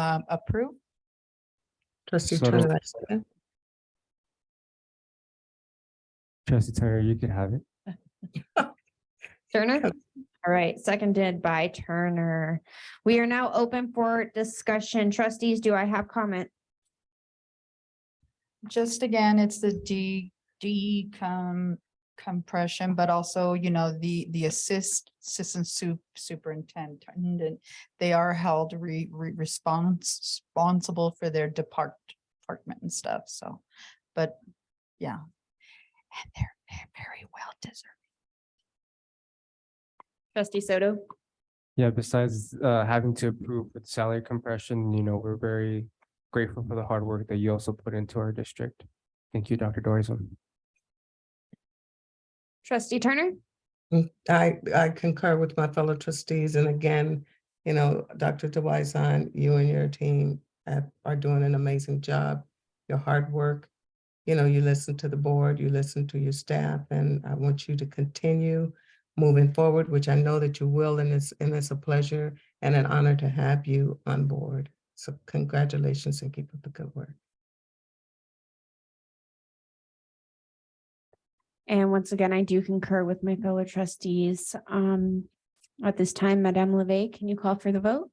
um, approve. Trustee So- Turner, I second. Trustee Turner, you can have it. Turner? All right, seconded by Turner. We are now open for discussion. Trustees, do I have comment? Just again, it's the de- decom- compression, but also, you know, the, the assist, assistant su- superintendent. They are held re- re- response, responsible for their depart, department and stuff, so, but, yeah. And they're ve- very well deserved. Trustee Soto? Yeah, besides uh having to approve with salary compression, you know, we're very grateful for the hard work that you also put into our district. Thank you, Dr. Dorison. Trustee Turner? I, I concur with my fellow trustees, and again, you know, Dr. DeWison, you and your team have- are doing an amazing job. Your hard work, you know, you listen to the board, you listen to your staff, and I want you to continue moving forward, which I know that you will, and it's, and it's a pleasure and an honor to have you on board. So congratulations and keep up the good work. And once again, I do concur with my fellow trustees. Um, at this time, Madame Leve, can you call for the vote?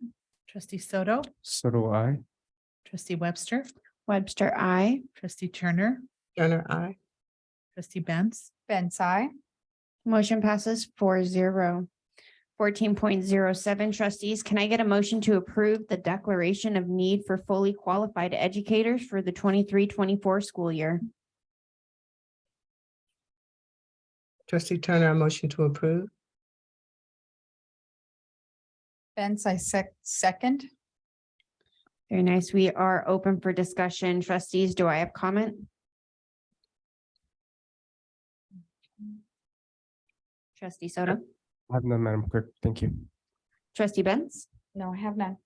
Trustee Soto, So do I. trustee Webster, Webster, I. trustee Turner, Turner, I. trustee Benz, Ben's I. Motion passes 4-0. Fourteen point zero seven trustees, can I get a motion to approve the declaration of need for fully qualified educators for the 23-24 school year? Trustee Turner, I motion to approve. Ben's I sec- second. Very nice. We are open for discussion. Trustees, do I have comment? Trustee Soto, I Have none, Madam Clerk. Thank you. trustee Benz, No, I have none.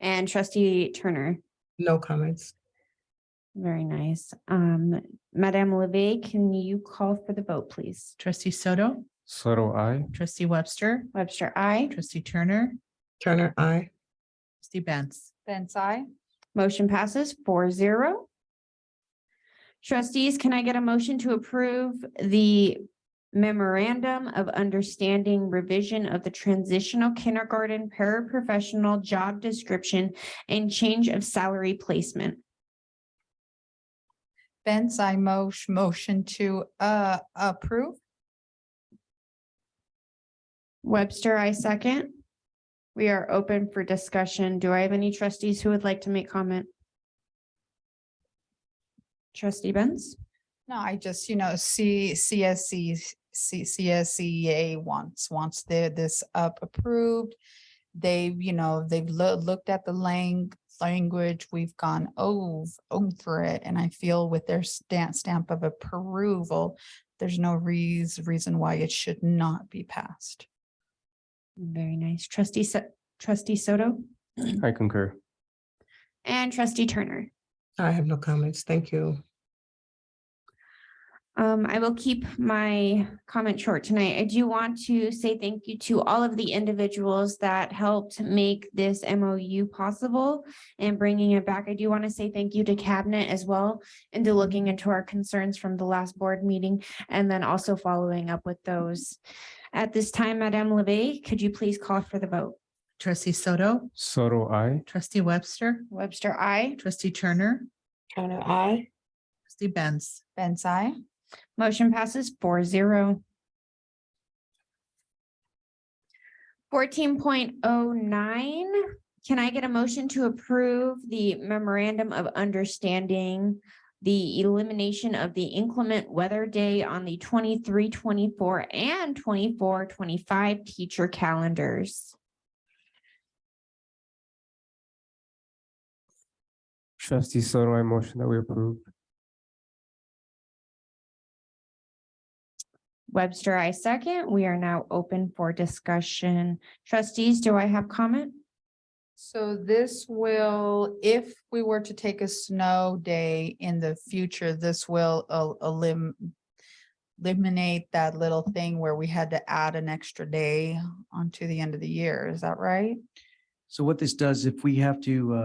and trustee Turner. No comments. Very nice. Um, Madame Leve, can you call for the vote, please? trustee Soto, So do I. trustee Webster, Webster, I. trustee Turner, Turner, I. trustee Benz, Ben's I. Motion passes 4-0. Trustees, can I get a motion to approve the memorandum of understanding revision of the transitional kindergarten paraprofessional job description and change of salary placement? Ben's I mo- motion to, uh, approve. Webster, I second. We are open for discussion. Do I have any trustees who would like to make comment? Trustee Benz? No, I just, you know, C, CSC, C, CSEA wants, wants their, this up approved. They've, you know, they've loo- looked at the lang- language, we've gone over, over it, and I feel with their stamp, stamp of approval, there's no reas- reason why it should not be passed. Very nice. Trustee, So- trustee Soto I concur. and trustee Turner. I have no comments. Thank you. Um, I will keep my comment short tonight. I do want to say thank you to all of the individuals that helped make this MOU possible and bringing it back. I do want to say thank you to cabinet as well into looking into our concerns from the last board meeting and then also following up with those. At this time, Madame Leve, could you please call for the vote? trustee Soto, So do I. trustee Webster, Webster, I. trustee Turner, Turner, I. trustee Benz, Ben's I. Motion passes 4-0. Fourteen point oh nine, can I get a motion to approve the memorandum of understanding? The elimination of the inclement weather day on the 23-24 and 24-25 teacher calendars. Trustee Soto, I motion that we approve. Webster, I second. We are now open for discussion. Trustees, do I have comment? So this will, if we were to take a snow day in the future, this will el- elim- eliminate that little thing where we had to add an extra day onto the end of the year. Is that right? So what this does, if we have to, uh,